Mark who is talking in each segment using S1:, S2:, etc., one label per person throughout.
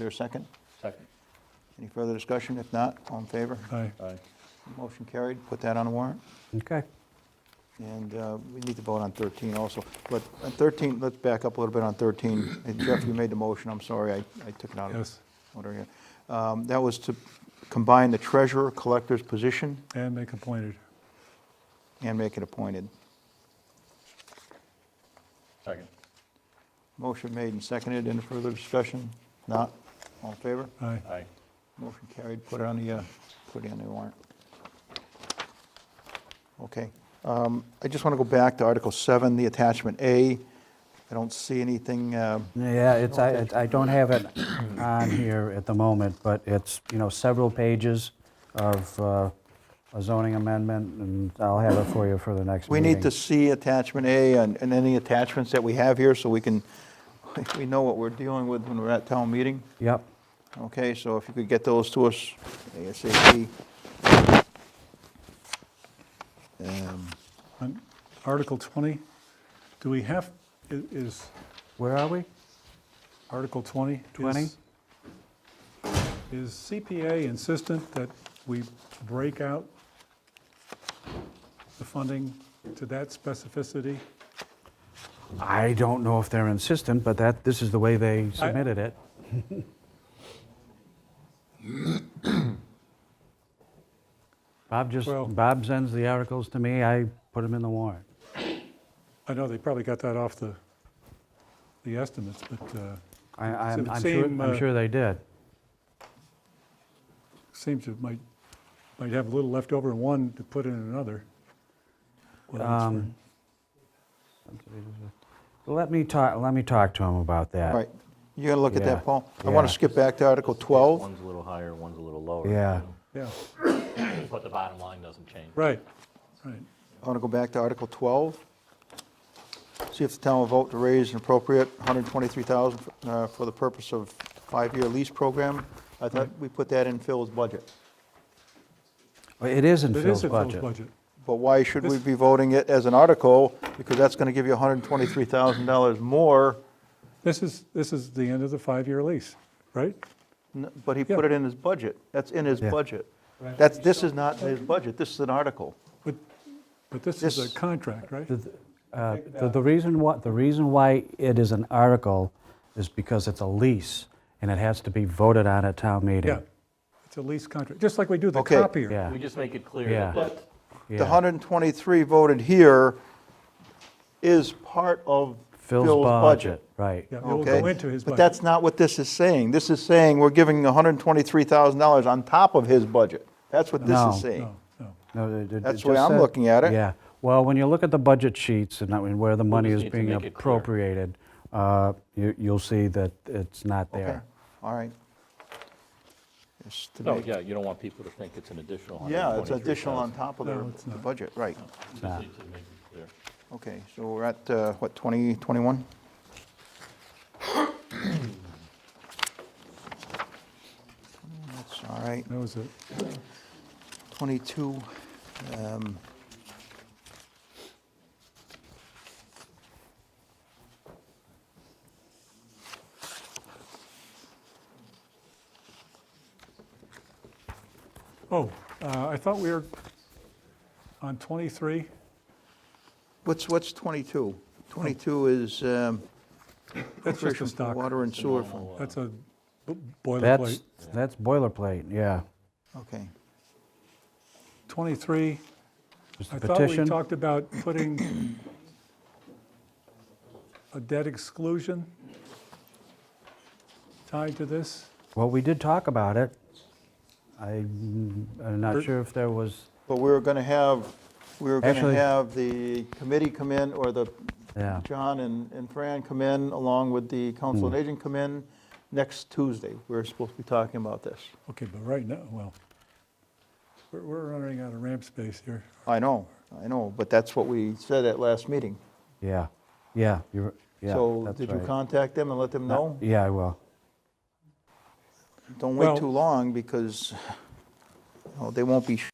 S1: there a second?
S2: Second.
S1: Any further discussion? If not, all in favor?
S3: Aye.
S2: Aye.
S1: Motion carried, put that on the warrant.
S4: Okay.
S1: And uh, we need to vote on 13 also. But on 13, let's back up a little bit on 13. And Jeff, you made the motion, I'm sorry, I I took it out of
S3: Yes,
S1: order here. Um, That was to combine the treasurer, collector's position,
S3: and make appointed.
S1: and make it appointed.
S2: Second.
S1: Motion made and seconded, any further discussion? Not, all in favor?
S3: Aye.
S2: Aye.
S1: Motion carried, put it on the, uh, put it on the warrant. Okay. Um, I just want to go back to Article 7, the attachment A. I don't see anything, uh,
S4: Yeah, it's, I, it- I don't have it on here at the moment, but it's, you know, several pages of uh, a zoning amendment, and I'll have it for you for the next
S1: we
S4: meeting.
S1: need to see attachment A and and any attachments that we have here so we can, we know what we're dealing with when we're at town meeting.
S4: Yep,
S1: Okay, so if you could get those to us ASAP. Um,
S3: On Article 20, do we have, i- is
S4: where are we?
S3: Article 20? is-
S4: 20?
S3: Is CPA insistent that we break out the funding to that specificity?
S4: I don't know if they're insistent, but that, this is the way they submitted it. Bob just,
S3: Well-
S4: Bob sends the articles to me, I put them in the warrant.
S3: I know they probably got that off the, the estimates, but uh,
S4: I, I'm
S3: the
S4: I'm sure,
S3: same, uh,
S4: I'm sure they did.
S3: seems to might, might have a little left over in one to put in another. Well, that's
S4: Um,
S3: right.
S4: Let me talk, let me talk to him about that.
S1: All right, you got to look at
S4: Yeah,
S1: that, Paul. I want
S4: yeah.
S1: to skip back to Article 12.
S2: One's a little higher, one's a little lower.
S4: Yeah.
S3: Yeah,
S2: But the bottom line doesn't change.
S3: right, right.
S1: I want to go back to Article 12. See if the town will vote to raise an appropriate $123,000 uh, for the purpose of five-year lease program. I thought we put that in Phil's budget.
S4: Well, It is in
S3: It is
S4: Phil's
S3: in Phil's
S4: budget.
S3: budget.
S1: But why should we
S3: This-
S1: be voting it as an article? Because that's going to give you $123,000 more,
S3: This is, this is the end of the five-year lease, right?
S1: N- but he put
S3: Yeah.
S1: it in his budget. That's in his
S4: Yeah.
S1: budget. That's, this is not his budget, this is an article.
S3: But, but this is a
S1: This-
S3: contract, right?
S4: Uh, The the reason why, the reason why it is an article is because it's a lease, and it has to be voted on at town meeting.
S3: Yeah, it's a lease contract, just like we do the
S1: Okay.
S3: copier.
S4: Yeah.
S2: We just make it clear
S4: Yeah.
S2: that that
S1: The
S4: Yeah.
S1: 123 voted here is part of
S4: Phil's budget, right.
S3: Yeah, it will
S1: Okay,
S3: go into his
S1: But
S3: budget.
S1: that's not what this is saying. This is saying we're giving $123,000 on top of his budget. That's what this
S4: No.
S1: is saying.
S3: No, no.
S4: No, it- it-
S1: That's
S4: it
S1: the way
S4: just
S1: I'm
S4: said-
S1: looking at it.
S4: Yeah, well, when you look at the budget sheets and I mean, where the money
S2: just
S4: is
S2: need to
S4: being
S2: make it clear.
S4: appropriated, uh, you- you'll see that it's not
S1: Okay,
S4: there.
S1: all right. Just to
S2: No,
S1: make-
S2: Oh, yeah, you don't want people to think it's an additional
S1: Yeah, it's
S2: 123,000.
S1: additional on top of their
S3: No, it's
S1: the
S3: not.
S1: budget, right.
S2: You just need to make it clear.
S1: Okay, so we're at, uh, what, 20, 21? That's all right.
S3: That was it.
S1: 22. um,
S3: Oh, uh, I thought we were on 23,
S1: What's, what's 22? 22 is um,
S3: that's just
S1: appropriation
S3: a
S1: for
S3: stock,
S1: water and sewer fund.
S3: that's a b-
S4: That's,
S3: boilerplate.
S4: that's boilerplate, yeah.
S1: Okay,
S3: 23,
S4: Just
S3: I
S4: a
S3: thought we
S4: petition.
S3: talked about putting a debt exclusion tied to this.
S4: Well, we did talk about it. I'm I'm not sure if there was,
S1: but we were going to have, we were going to
S4: Actually-
S1: have the committee come in, or the,
S4: Yeah. Hmm.
S1: John and and Fran come in, along with the council and agent come in next Tuesday. We We're supposed to be talking about this.
S3: Okay, but right now, well, we're, we're running out of ramp space here.
S1: I know, I know, but that's what we said at last meeting.
S4: yeah, yeah, you're, yeah,
S1: So
S4: that's
S1: did you
S4: right.
S1: contact them and let them know?
S4: Yeah, I will.
S1: Don't wait
S3: Well-
S1: too long, because you know, they won't be, sh-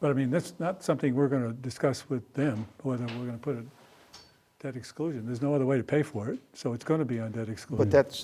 S3: But I mean, that's not something we're going to discuss with them, whether we're going to put a debt exclusion. There's no other way to pay for it, so it's going to be on debt exclusion.
S1: But
S4: Hmm.
S1: that's,